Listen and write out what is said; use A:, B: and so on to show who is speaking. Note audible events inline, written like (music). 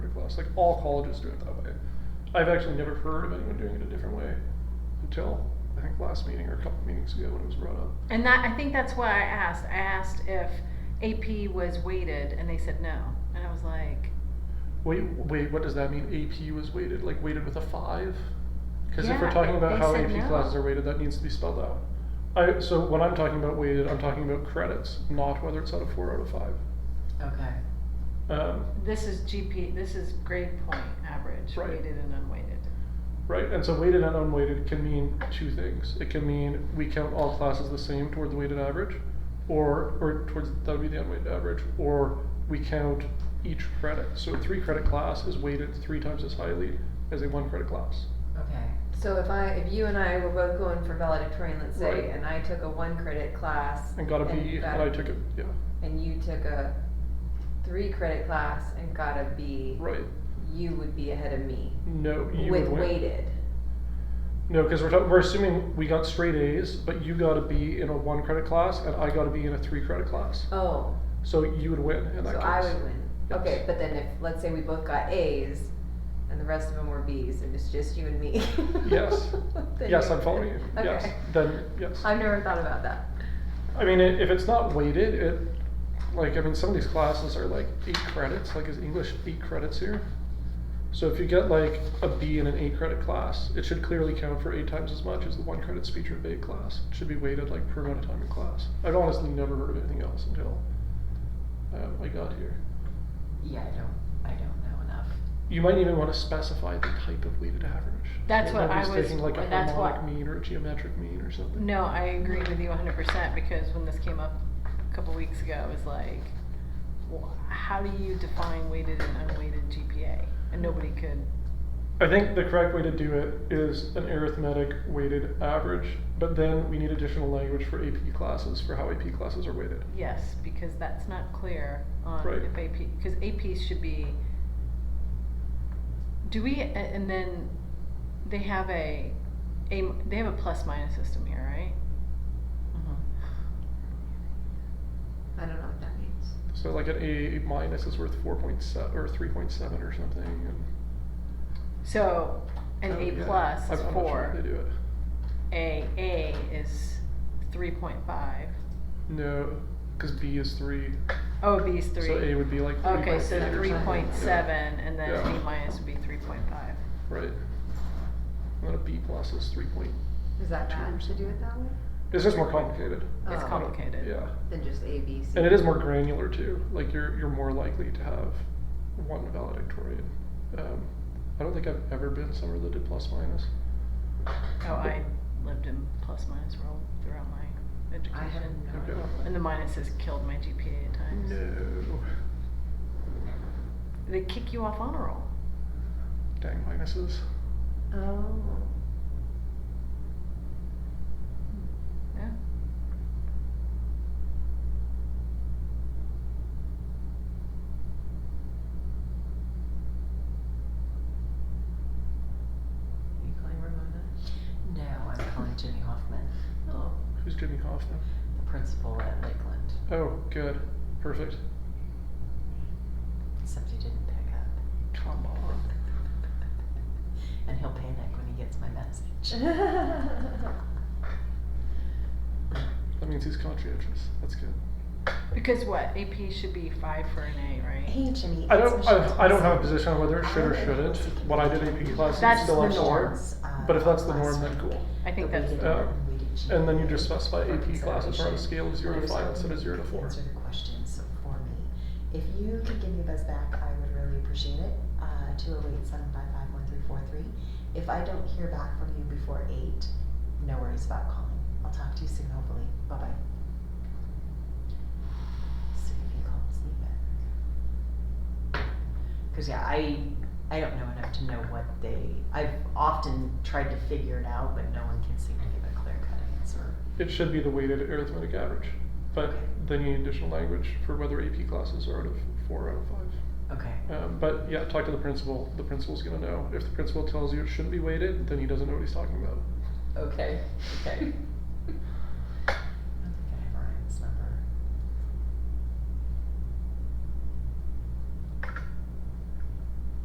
A: else. Like all colleges do it that way. I've actually never heard of anyone doing it a different way until I think last meeting or a couple meetings ago when it was brought up.
B: And that, I think that's why I asked. I asked if AP was weighted, and they said no. And I was like,
A: Wait, wait, what does that mean? AP was weighted, like weighted with a five? Because if we're
B: Yeah,
A: talking
B: they
A: about how
B: said
A: AP
B: no.
A: classes are weighted, that needs to be spelled out. I, so when I'm talking about weighted, I'm talking about credits, not whether it's out of four out of five.
C: Okay.
A: Um,
B: this is GP, this is grade point average,
A: Right.
B: weighted and unweighted.
A: right, and so weighted and unweighted can mean two things. It can mean we count all classes the same toward the weighted average, or or towards that would be the unweighted average, or we count each credit. So a three credit class is weighted three times as highly as a one credit class.
C: Okay.
D: So if I, if you and I were both going for valedictorian, let's say,
A: Right.
D: and I took a one credit class.
A: And got a B,
D: got
A: and I
D: a-
A: took it. Yeah,
D: And you took a three credit class and got a B,
A: right.
D: you would be ahead of me
A: No, you
D: with
A: would win.
D: weighted.
A: No, because we're talking, we're assuming we got straight A's, but you got a B in a one credit class, and I got a B in a three credit class.
D: Oh,
A: So you would win in
D: so
A: that case.
D: I would win.
A: Yes.
D: Okay, but then if, let's say we both got A's and the rest of them were B's and it's just you and me.
A: Yes.
D: (laughs) then
A: yes,
D: you're
A: I'm following you.
D: good.
A: Yes.
D: Okay.
A: Then yes.
D: I've never thought about that.
A: I mean, i if it's not weighted, it like I mean, some of these classes are like eight credits. Like is English eight credits here? So if you get like a B in an eight credit class, it should clearly count for eight times as much as the one credit speech or debate class. It should be weighted like per amount of time in class. I've honestly never heard of anything else until um, I got here.
C: Yeah, I don't, I don't know enough.
A: You might even want to specify the type of weighted average.
B: That's
A: You
B: what
A: might be
B: I was-
A: Taking like a
B: that's what-
A: harmonic mean or a geometric mean or something.
B: No, I agree with you 100% because when this came up a couple weeks ago, it was like, well, how do you define weighted and unweighted GPA? And nobody could.
A: I think the correct way to do it is an arithmetic weighted average, but then we need additional language for AP classes for how AP classes are weighted.
B: Yes, because that's not clear on
A: Right.
B: if AP, because AP should be, do we, a- and then they have a, a, they have a plus minus system here, right?
D: I don't know what that means.
A: So like an A minus is worth four point seven or three point seven or something. And,
B: So, an
A: oh, yeah.
B: A plus
A: I'm-
B: is
A: I'm not sure how
B: four,
A: they do it.
B: a, A is three point five,
A: No, because B is three,
B: oh, B is three.
A: so A would be like three
B: Okay, so
D: or
B: three point seven, and then
A: Yeah.
B: A minus would be three point five.
A: Right. And then a B plus is three point.
D: Is that
A: Two
D: bad to do it that way?
A: It's just more complicated.
B: It's
D: Oh.
B: complicated.
A: Yeah.
D: Than just A, B, C?
A: And it is more granular too. Like you're you're more likely to have one valedictorian. Um, I don't think I've ever been somewhere that did plus minus.
B: Oh, I lived in plus minus world throughout my
D: I have
B: education.
D: no
A: Okay.
D: idea.
B: And the minuses killed my GPA at times.
A: No.
B: They kick you off honor roll.
A: Dang minuses.
D: Oh.
B: Yeah.
D: Are you calling Ramona?
C: No, I'm calling Jimmy Hoffman,
D: Oh.
A: Who's Jimmy Hoffman?
C: the principal at Lakeland.
A: Oh, good. Perfect.
C: Except he didn't pick up.
A: Come on.
C: And he'll panic when he gets my
D: (laughs)
C: message.
A: That means he's conscientious. That's good.
B: Because what, AP should be five for an A, right?
C: Hey, Jimmy.
A: I
C: it's
A: don't
C: Michelle
A: I, I don't have a
C: Thompson.
A: position on whether it should or shouldn't. When I did AP classes,
B: That's
A: it's still
B: the
A: on
B: norm.
A: sore. But if that's the norm, then cool.
B: I think that's,
A: did- uh, And then you just specify AP classes are on a scale of zero to five instead of zero to four.
C: Answer the questions for me. If you could give me a buzz back, I would really appreciate it, uh, two oh eight seven five five one three four three. If I don't hear back from you before eight, no worries about calling. I'll talk to you soon, hopefully. Bye-bye. See if he calls me back. Cause yeah, I, I don't know enough to know what they, I've often tried to figure it out, but no one can seem to give a clear cut answer.
A: It should be the weighted arithmetic average. But then you need additional language for whether AP classes are out of four out of five.
C: Okay.
A: Um, but yeah, talk to the principal. The principal's gonna know. If the principal tells you it shouldn't be weighted, then he doesn't know what he's talking about.
C: Okay, okay.